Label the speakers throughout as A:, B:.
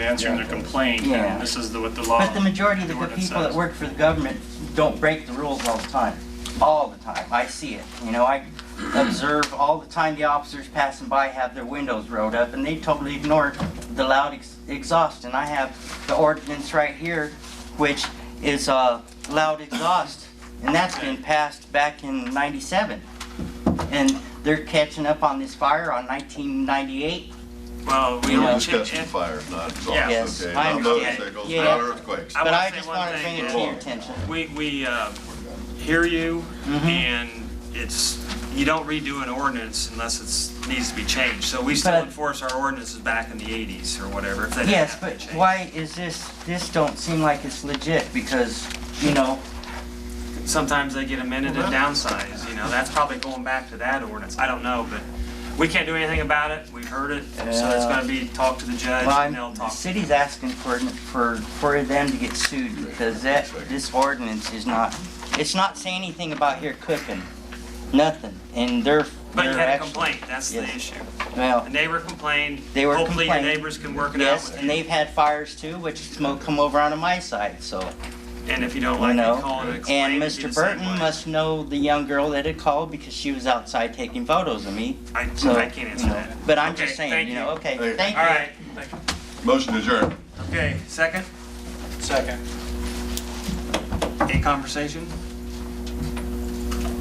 A: answering their complaint,
B: Yeah.
A: and this is the, what the law.
B: But the majority of the
A: the
B: good
A: ordinance
B: people that
A: says.
B: work for the government don't break the rules all the time, all the time. I see it, you know, I observe all the time the officers passing by have their windows rolled up and they totally ignore the loud ex- exhaust. And I have the ordinance right here, which is uh, loud exhaust, and that's been passed back in 97. And they're catching up on this fire on 1998.
A: Well, we
B: You
C: We're
A: don't.
B: know,
C: discussing fire, not
B: Yes,
C: exhaust, okay?
B: I
C: Not motor
B: understand.
C: vehicles,
B: Yeah.
C: not earthquakes.
A: I
B: But
A: wanna
B: I
A: say
B: just
A: one
B: wanted to
A: thing,
B: bring
A: yeah.
B: it to your attention.
A: We, we uh, hear you,
B: Mm-hmm.
A: and it's, you don't redo an ordinance unless it's, needs to be changed. So we still
B: But-
A: enforce our ordinances back in the 80s or whatever, if they didn't
B: Yes,
A: have to
B: but
A: change.
B: why is this, this don't seem like it's legit, because, you know,
A: Sometimes they get amended and downsized, you know, that's probably going back to that ordinance, I don't know, but we can't do anything about it, we've heard it, so it's gonna be, talk to the judge, and
B: well, I'm-
A: they'll
B: the
A: talk.
B: city's asking for, for, for them to get sued, because that, this ordinance is not, it's not saying anything about here cooking, nothing, and they're,
A: But you
B: they're
A: had a
B: actually.
A: complaint, that's the
B: Yes.
A: issue.
B: Well,
A: The neighbor complained,
B: They were
A: hopefully your
B: complaining.
A: neighbors can work it out
B: yes,
A: with
B: and
A: you,
B: they've had fires too, which smoke come over onto my side, so,
A: and if you don't
B: you
A: like
B: know.
A: it, call and explain.
B: And
A: it'd be the
B: Mr.
A: same
B: Burton
A: way.
B: must know the young girl that had called, because she was outside taking photos of me,
A: I,
B: so.
A: I can't answer
B: you know,
A: that.
B: But I'm
A: Okay,
B: just saying,
A: thank
B: you know, okay,
C: Thank you.
B: thank you.
A: All right, thank you.
C: Motion adjourned.
A: okay, second? Second. Any conversation?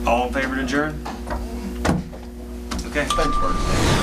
A: All in favor to adjourn? Okay.
C: Thanks, Bert.